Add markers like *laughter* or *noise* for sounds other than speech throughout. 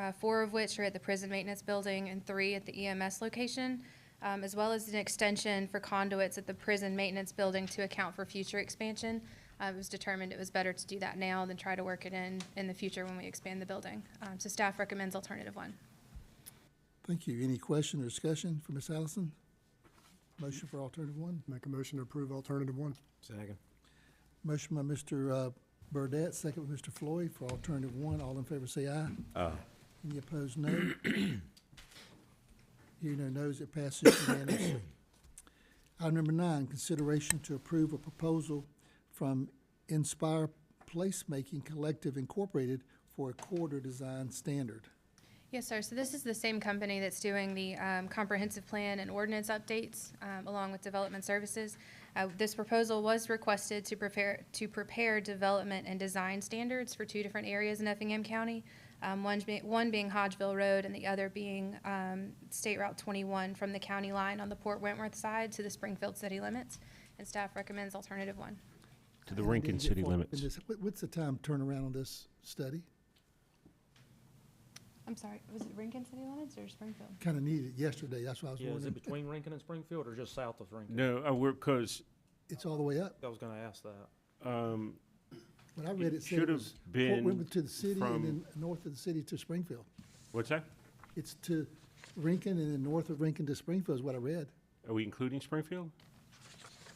uh, four of which are at the prison maintenance building and three at the EMS location, um, as well as an extension for conduits at the prison maintenance building to account for future expansion. Uh, It was determined it was better to do that now than try to work it in in the future when we expand the building. Um, So staff recommends alternative one. Thank you. Any question or discussion for Ms. Allison? Motion for alternative one. Make a motion to approve alternative one. Second. Motion by Mr. uh, Burdette, second by Mr. Floyd for alternative one. All in favor say aye. Aye. Any opposed, no. *coughs* Hearing no nos, it passes unanimously. *clears throat* Item number nine, consideration to approve a proposal from Inspire Placemaking Collective Incorporated for a corridor design standard. Yes, sir. So this is the same company that's doing the um, comprehensive plan and ordinance updates, um, along with development services. Uh, This proposal was requested to prepare, to prepare development and design standards for two different areas in Effingham County, um, one being, one being Hodgeville Road and the other being um, State Route 21 from the county line on the Port Wentworth side to the Springfield city limits. And staff recommends alternative one. To the I didn't Rankin get city far up in limits. this. What- What's the time turnaround on this study? I'm sorry, was it Rankin city limits or Springfield? Kind of needed it yesterday, that's why I was Yeah, is it wondering. between Rankin and Springfield or just south of Rankin? No, uh, we're, because, It's all the way up. I was gonna ask that. um, When I read it it, said it should have was Fort been, Wentworth to the city and from- then north of the city to Springfield. what's that? It's to Rinkin and then north of Rinkin to Springfield is what I read. Are we including Springfield?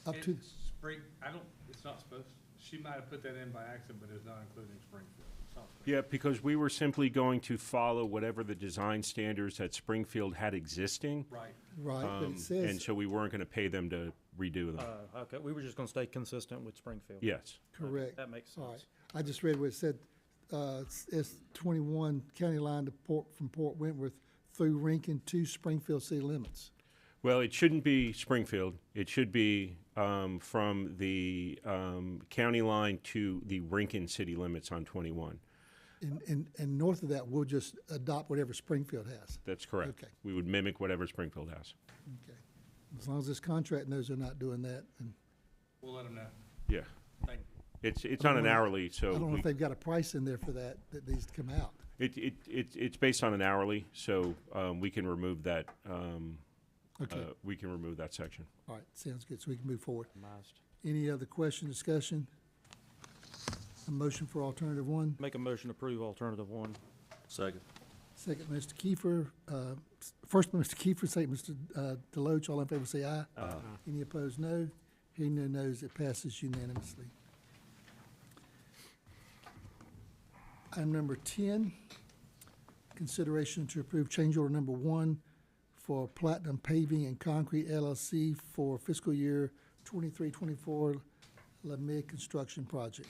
Up to, It's Spring, I don't, it's not supposed, she might have put that in by accident, but it's not including Springfield. It's not Springfield. Yeah, because we were simply going to follow whatever the design standards that Springfield had existing. Right. right, but um, it And says, so we weren't going to pay them to redo them. Uh, okay, we were just gonna stay consistent with Springfield. Yes. Okay, correct. That makes All right. sense. I just read where it said, uh, it's- it's twenty-one county line to Port, from Port Wentworth through Rinkin to Springfield city limits. Well, it shouldn't be Springfield. It should be um, from the um, county line to the Rankin city limits on 21. And, and, and north of that, we'll just adopt whatever Springfield has. That's correct. Okay. We would mimic whatever Springfield has. Okay. As long as this contract knows they're not doing that, and We'll let them know. Yeah. Thank you. It's, it's I don't on an know- hourly, I so. don't know we- if they've got a price in there for that, that needs to come out. It, it, it, it's based on an hourly, so, um, we can remove that, um, uh, Okay, we can remove that section. all right, sounds good, so we can move forward. Must. Any other question, discussion? A motion for alternative one. Make a motion to approve alternative one. Second. Second, Mr. Kiefer, uh, s- first by Mr. Kiefer, second, Mr. uh, Deloach, all in favor say aye. Aye. Any opposed, no. Hearing no nos, it passes unanimously. Item number ten, consideration to approve change order number one for Platinum Paving and Concrete LLC for fiscal year twenty-three, twenty-four Lemay Construction Project.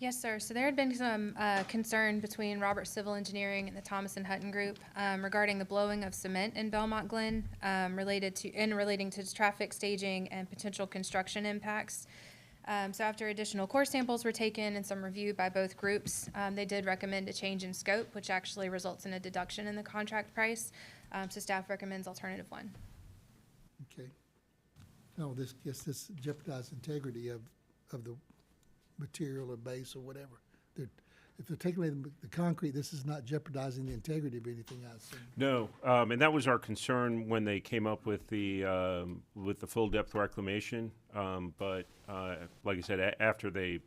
Yes, sir. So there had been some uh, concern between Robert Civil Engineering and the Thomas and Hutton Group um, regarding the blowing of cement in Belmont Glen um, related to, and relating to traffic staging and potential construction impacts. Um, So after additional core samples were taken and some review by both groups, um, they did recommend a change in scope, which actually results in a deduction in the contract price. Um, So staff recommends alternative one. Okay. No, this, yes, this jeopardizes integrity of, of the material or base or whatever. They're, if they're taking away the, the concrete, this is not jeopardizing the integrity of anything I assume. No, um, and that was our concern when they came up with the, um, with the full depth reclamation. Um, but, uh, like I said, a- after they,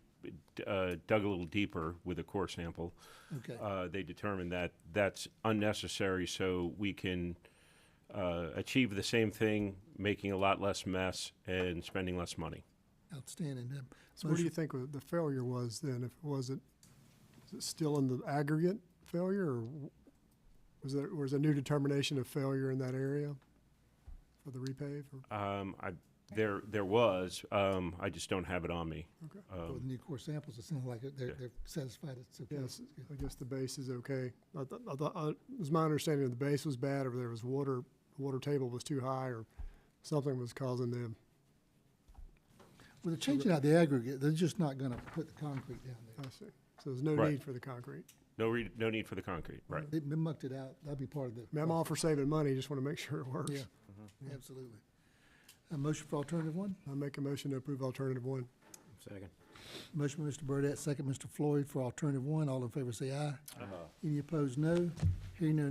uh, dug a little deeper with a core sample, Okay, uh, they determined that that's unnecessary, so we can, uh, achieve the same thing, making a lot less mess and spending less money. outstanding. Um, So what do you motion- think wa- the failure was then? If it wasn't, is it still in the aggregate failure or w- was there, was a new determination of failure in that area for the repave? or- Um, I, there, there was, um, I just don't have it on me. Okay. oh, Um, the new core samples, it sounds like it- they're, Yeah. they're satisfied, it's okay. Yes, I guess the base is okay. I th- I th- I- It was my understanding the base was bad or there was water, water table was too high or something was causing them. Well, they're changing out the aggregate, they're just not gonna put the concrete down there. I see. So there's no Right. need for the concrete. No re, no need for the concrete, right? They they mucked it out, that'd be part of the. I mean, I'm all for saving money, just want to make sure it works. Yeah, absolutely. A motion for alternative one? I make a motion to approve alternative one. Second. Motion by Mr. Burdette, second Mr. Floyd for alternative one. All in favor say aye. Any opposed, no. Hearing no